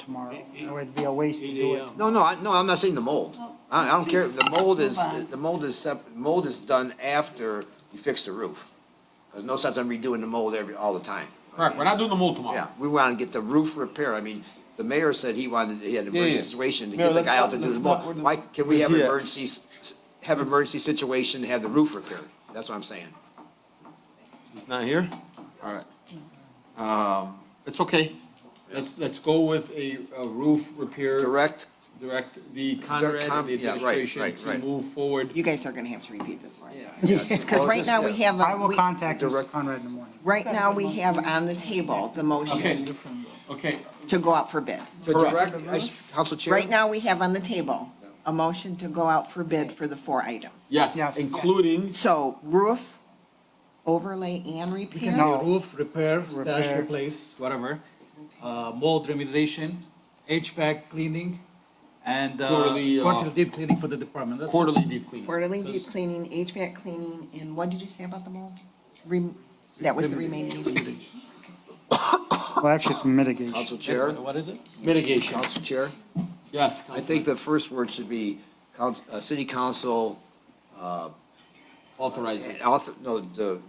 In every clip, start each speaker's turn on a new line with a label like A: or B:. A: tomorrow. It would be a waste to do it.
B: No, no, I, no, I'm not saying the mold. I, I don't care, the mold is,
C: Move on.
B: the mold is sep, mold is done after you fix the roof. There's no sense in redoing the mold every, all the time.
D: Correct, we're not doing the mold
B: Yeah,
D: tomorrow.
B: we want to get the roof repair. I mean, the mayor said he wanted, he had an
E: Yeah, yeah.
B: emergency situation to
E: No,
B: get the
E: let's
B: guy out
E: not-
B: to do
E: let's
B: the
E: not- we're
B: mold.
E: not-
B: Why can't we have
E: Yeah.
B: emergency, s- s- have emergency situation, have the roof repaired? That's what I'm saying.
E: He's not here? All right. Um, it's okay.
D: Let's, let's go with a, a roof repair,
B: Direct,
D: direct the Conrad
B: com-
D: and the
B: yeah, right,
D: administration
B: right,
D: to
B: right.
D: move forward.
C: You guys are gonna have to repeat this for us.
B: Well,
C: Because
E: Oh,
C: right
B: this-
C: now, we have,
A: I
C: a-
A: will
C: we-
A: contact Mr.
B: Direct-
A: Conrad in the morning.
C: right now, we have on the table the motion
D: Okay,
C: to go out for bid.
B: to
D: Correct.
B: direct, Council Chair?
C: Right now, we have on the table a motion to go out for bid for the four items.
D: yes,
A: Yes.
D: including,
C: So roof, overlay and repair,
A: No.
F: Roof repair, dash
A: Repair.
F: replace, whatever, uh, mold remediation, HVAC cleaning, and, uh,
D: Quarterly, uh,
F: quarterly deep cleaning for the department, that's it.
D: quarterly deep cleaning.
C: quarterly deep cleaning, HVAC cleaning, and what did you say about the mold? Rem- That was the remaining.
A: Well, actually, it's mitigation.
B: Council Chair?
F: What is it?
D: Mitigation,
B: Council Chair?
D: yes.
B: I think
D: Councilman.
B: the first word should be council, uh, city council,
D: Authorizes.
B: and author, no, the.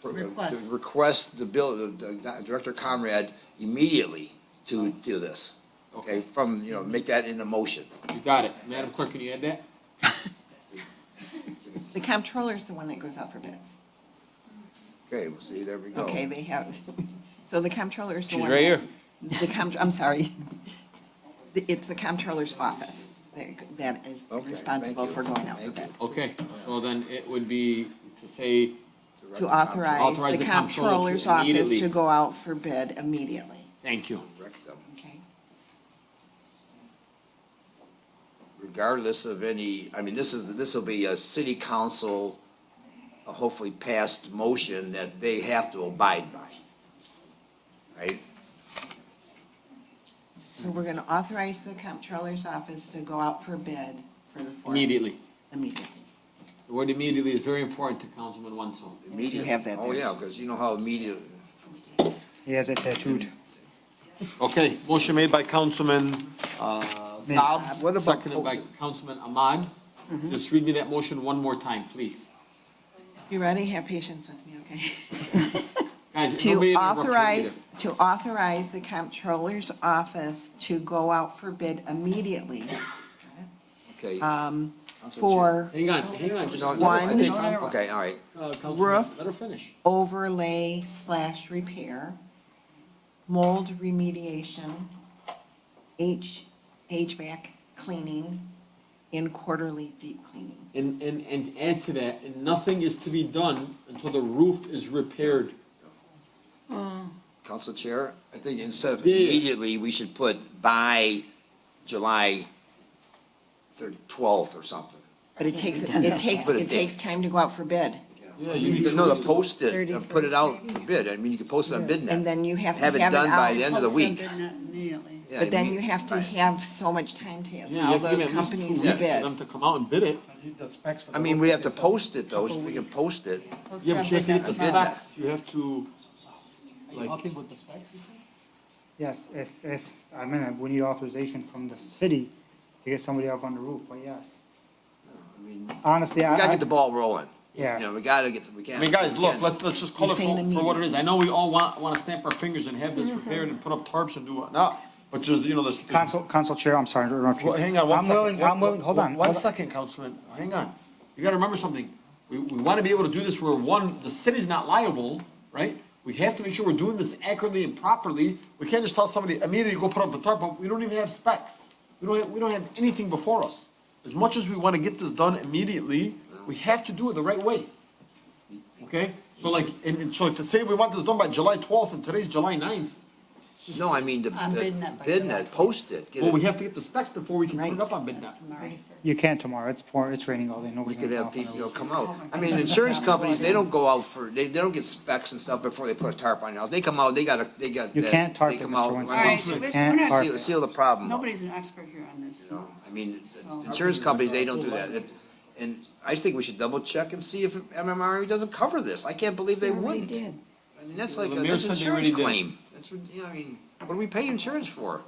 C: Request.
B: the Request the bill, the- the Director Conrad immediately to do this, okay, from, you know, make that in a motion.
D: You got it. Madam Clerk, can you add that?
C: The comptroller's the one that goes out for bids.
B: Okay, we'll see, there we go.
C: Okay, they have, so the comptroller's the
E: She's
C: one.
E: right here.
C: The compt, I'm sorry. The- It's the comptroller's office that- that is
B: Okay, thank
C: responsible
B: you.
C: for going out for
B: Thank
C: bid.
B: you.
D: Okay, so then it would be to say,
B: Director
C: To
B: Conrad,
C: authorize
D: Authorize
C: the
D: the comptroller to
C: comptroller's office
D: immediately-
C: to go out for bid immediately,
D: thank you.
B: direct them,
C: okay?
B: Regardless of any, I mean, this is, this will be a city council, uh, hopefully passed motion that they have to abide by. Right?
C: So we're gonna authorize the comptroller's office to go out for bid for the four.
D: Immediately.
C: Immediately.
D: The word immediately is very important to Councilman Wenzel.
B: Immediate.
C: have that
B: Oh,
C: there.
B: yeah, because you know how immediate,
A: He has it tattooed.
D: Okay, motion made by Councilman, uh,
B: What
D: Saab,
B: about-
D: seconded by Councilman Ahmad.
C: Mm-hmm.
D: Just read me that motion one more time, please.
C: You ready? Have patience with me, okay?
D: Guys, nobody
C: To
D: interrupt me
C: authorize,
D: either.
C: to authorize the comptroller's office to go out for bid immediately
B: okay. Council Chair.
C: for
D: Hang on, hang on, just.
B: No, no, I
C: Uh, One-
B: think-
C: No, no, no.
B: Okay, all right,
D: Uh, Councilman,
C: Roof.
D: Let her finish.
C: overlay slash repair, mold remediation, H, HVAC cleaning, and quarterly deep cleaning.
D: And, and, and add to that, and nothing is to be done until the roof is repaired.
B: Council Chair, I think instead of
D: Yeah, yeah.
B: immediately, we should put by July thir- 12th or something.
C: But it takes, it takes,
B: But it
C: it takes time to go out for bid.
D: Yeah, you need to.
B: No, to post it, uh, put it out for bid, I mean, you could post it on BidNet.
C: And then you have to
B: Have it
C: have it
B: done by
C: out.
B: the end of the week.
G: Immediately.
B: Yeah,
C: But then
B: imme-
C: you have to
B: right.
C: have so much time to
D: Yeah, you
C: allow
D: have to give
C: the
D: it at least two
C: companies to
D: weeks for
C: bid.
D: them to come out and bid it.
B: I mean, we have to post it though, we can post it.
D: Yeah, but you have to get the
B: Bid that.
D: specs, you have to, like,
A: Yes, if, if, I mean, we need authorization from the city to get somebody up on the roof, but yes. Honestly,
B: We
A: I,
B: gotta
A: I,
B: get the ball rolling. You
A: yeah,
B: know, we gotta get,
D: Uh-huh.
B: we
D: I
B: can't.
D: mean, guys,
B: we
D: look,
B: can't-
D: let's, let's just call it
C: You're saying Mm-hmm.
D: for, for what it
C: immediately.
D: is. I know we all want, wanna stamp our fingers and have this repaired and put up tarps and do whatnot, but just, you know, this.
A: council, council chair, I'm sorry to interrupt you.
D: Well, hang on one second.
A: I'm willing, I'm willing, hold on.
D: One
A: hold on.
D: second, Councilman, hang on. You gotta remember something. We, we wanna be able to do this where, one, the city's not liable, right? We have to make sure we're doing this accurately and properly. We can't just tell somebody immediately go put up the tarp, but we don't even have specs. We don't, have- we don't have anything before us. As much as we wanna get this done immediately, we have to do it the right way. Okay? So like, and, and so to say we want this done by July twelfth and today's July 9th.
B: No, I mean, the,
G: On
B: the
G: BidNet by July
B: BidNet, post it. Get
D: well,
B: it-
D: we have to get the specs before we can put it up on BidNet.
A: You can't tomorrow. It's pouring, it's raining all day.
B: We
A: Nobody's
B: could
A: gonna
B: have
A: talk.
B: people, you know, come out. I mean, insurance companies, they don't go out for, they, they don't get specs and stuff before they put a tarp on your house. They come out, they gotta, they got.
A: You
B: that-
A: can't tarp
B: they
A: it,
B: come
A: Mr.
B: out-
A: Winston.
G: All right,
A: You
G: we're- we're
A: can't
G: not-
A: tarp it.
B: Seal, seal the problem. up,
G: Nobody's an expert here on this.
B: you know? I mean, the insurance companies, they don't do that. If- And I think we should double check and see if MMRE doesn't cover this. I can't believe they wouldn't. I mean, that's like,
D: The
B: a-
D: mayor
B: that's
D: said
B: an
D: they already
B: insurance
D: did.
B: claim. That's, what- you know, I mean, what do we pay insurance for?